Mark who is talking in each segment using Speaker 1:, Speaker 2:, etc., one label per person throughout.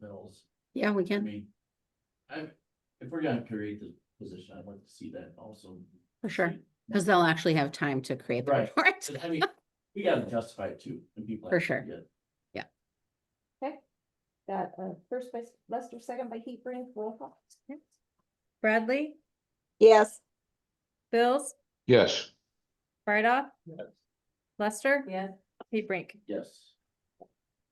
Speaker 1: levels.
Speaker 2: Yeah, we
Speaker 1: I
Speaker 2: can,
Speaker 1: mean, I, if we're gonna create the position, I'd like to see that also.
Speaker 2: for sure, because they'll actually have time to create the
Speaker 1: Right.
Speaker 2: report.
Speaker 1: 'Cause, I mean, we gotta justify it too. and people
Speaker 2: For
Speaker 1: actually
Speaker 2: sure.
Speaker 1: get-
Speaker 3: Got uh first by Lester, second by Hebring, roll call.
Speaker 4: Bradley,
Speaker 5: yes,
Speaker 4: Bills,
Speaker 6: yes,
Speaker 4: Brightoff,
Speaker 1: Yes.
Speaker 4: Lester,
Speaker 3: Yes.
Speaker 4: Hebrink.
Speaker 1: Yes,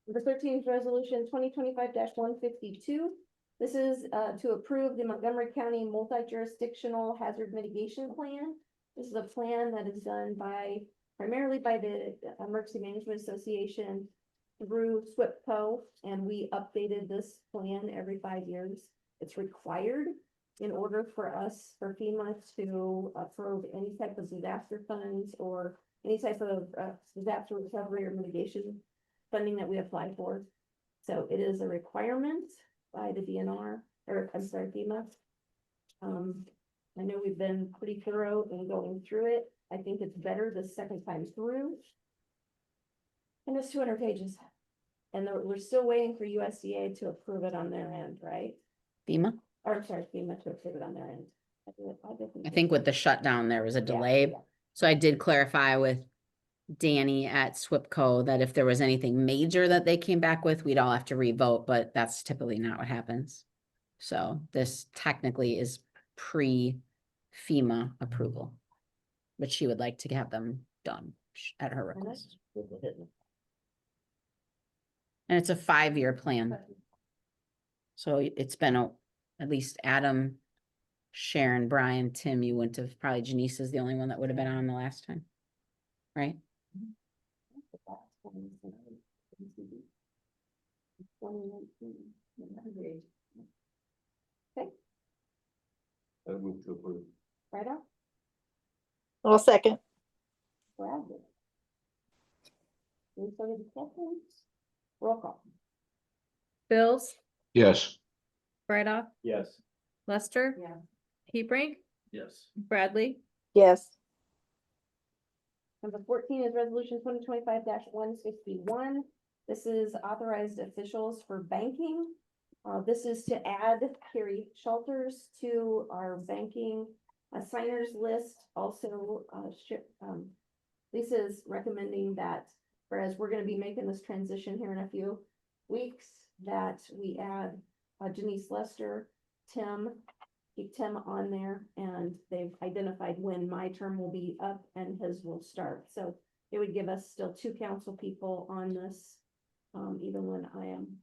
Speaker 3: Number thirteen is resolution twenty twenty-five one fifty-two. This is uh to approve the Montgomery County Multi-Jurisdictional Hazard Mitigation Plan. This is a plan that is done by, primarily by the Emergency Management Association through SWPCO, and we updated this plan every five years. It's required in order for us, for FEMA to approve any type of disaster funds or any type of uh disaster recovery or mitigation funding that we apply for. So it is a requirement by the DNR, or I'm sorry, FEMA. Um, I know we've been pretty thorough in going through it. I think it's better the second time through. And it's two hundred pages. And there- we're still waiting for USDA to approve it on their end, right?
Speaker 2: FEMA,
Speaker 3: Or sorry, FEMA to approve it on their end. I think-
Speaker 2: I think with the shutdown, there was a
Speaker 3: Yeah,
Speaker 2: delay,
Speaker 3: yeah.
Speaker 2: so I did clarify with Danny at SWPCO that if there was anything major that they came back with, we'd all have to revote, but that's typically not what happens. So this technically is pre FEMA approval, but she would like to have them done sh- at her
Speaker 3: And that's-
Speaker 2: request. And it's a five-year plan. So y- it's been, a- at least Adam, Sharon, Brian, Tim, you wouldn't have, probably Janice is the only one that would have been on the last time. Right?
Speaker 3: Okay,
Speaker 6: I move to approve.
Speaker 3: right up,
Speaker 5: I'll second,
Speaker 3: Bradley. Any further discussion? Roll call.
Speaker 4: Bills,
Speaker 6: yes,
Speaker 4: Brightoff,
Speaker 1: yes,
Speaker 4: Lester,
Speaker 3: Yeah.
Speaker 4: Hebrink,
Speaker 1: yes,
Speaker 4: Bradley,
Speaker 5: yes,
Speaker 3: Number fourteen is resolution twenty twenty-five one sixty-one. This is authorized officials for banking. Uh, this is to add Carrie Shelters to our banking assigners list. Also, uh, ship, um, Lisa's recommending that, whereas we're gonna be making this transition here in a few weeks, that we add uh, Denise Lester, Tim, keep Tim on there, and they've identified when my term will be up and his will start, so it would give us still two council people on this, um, even when I am.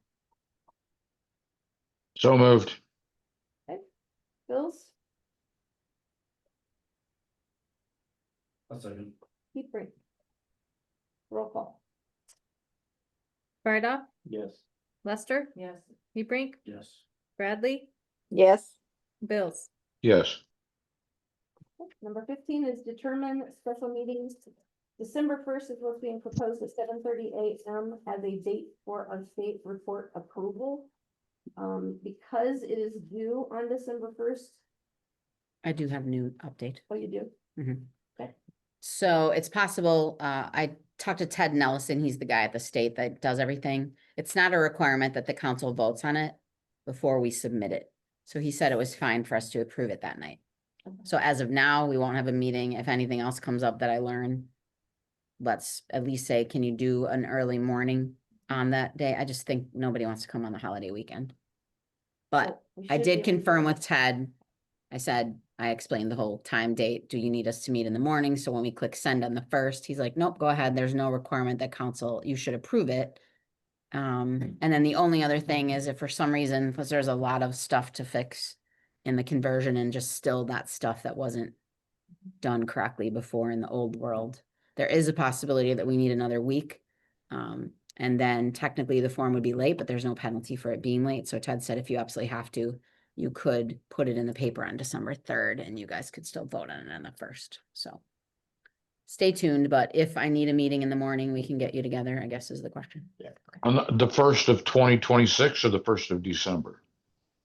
Speaker 6: so moved,
Speaker 3: Bills,
Speaker 1: a second,
Speaker 3: keep bring. Roll call.
Speaker 4: Brightoff,
Speaker 1: yes,
Speaker 4: Lester,
Speaker 3: Yes.
Speaker 4: Hebrink,
Speaker 1: yes,
Speaker 4: Bradley,
Speaker 5: yes,
Speaker 4: Bills.
Speaker 6: yes,
Speaker 3: Number fifteen is determine special meetings. December first is what's being proposed at seven thirty AM as a date for our state report approval. Um, because it is due on December first,
Speaker 2: I do have new update. Mm-hmm.
Speaker 3: oh, you do,
Speaker 2: So it's possible, uh, I talked to Ted Nelson, he's the guy at the state that does everything. It's not a requirement that the council votes on it before we submit it. So he said it was fine for us to approve it that night. So as of now, we won't have a meeting. If anything else comes up that I learn, let's at least say, can you do an early morning on that day? I just think nobody wants to come on the holiday weekend. But
Speaker 3: we
Speaker 2: I
Speaker 3: should be
Speaker 2: did
Speaker 3: able to-
Speaker 2: confirm with Ted. I said, I explained the whole time date. Do you need us to meet in the morning? So when we click send on the first, he's like, nope, go ahead. There's no requirement that council, you should approve it. Um, and then the only other thing is if for some reason, because there's a lot of stuff to fix in the conversion and just still that stuff that wasn't done correctly before in the old world, there is a possibility that we need another week. Um, and then technically the form would be late, but there's no penalty for it being late. So Ted said if you absolutely have to, you could put it in the paper on December third and you guys could still vote on it on the first, so. Stay tuned, but if I need a meeting in the morning, we can get you together, I guess is the question. Yeah.
Speaker 6: on the- the first of twenty twenty-six or the first of December?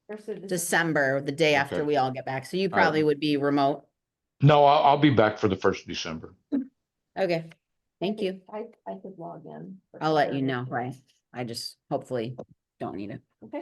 Speaker 3: First of
Speaker 2: December, the day after
Speaker 6: Okay.
Speaker 2: we all get back, so you
Speaker 6: All right.
Speaker 2: probably would be remote.
Speaker 6: No, I'll, I'll be back for the first of December.
Speaker 2: Okay, thank
Speaker 3: Okay,
Speaker 2: you.
Speaker 3: I, I could log in. for
Speaker 2: I'll let
Speaker 3: sure.
Speaker 2: you know, right? I just hopefully don't need it.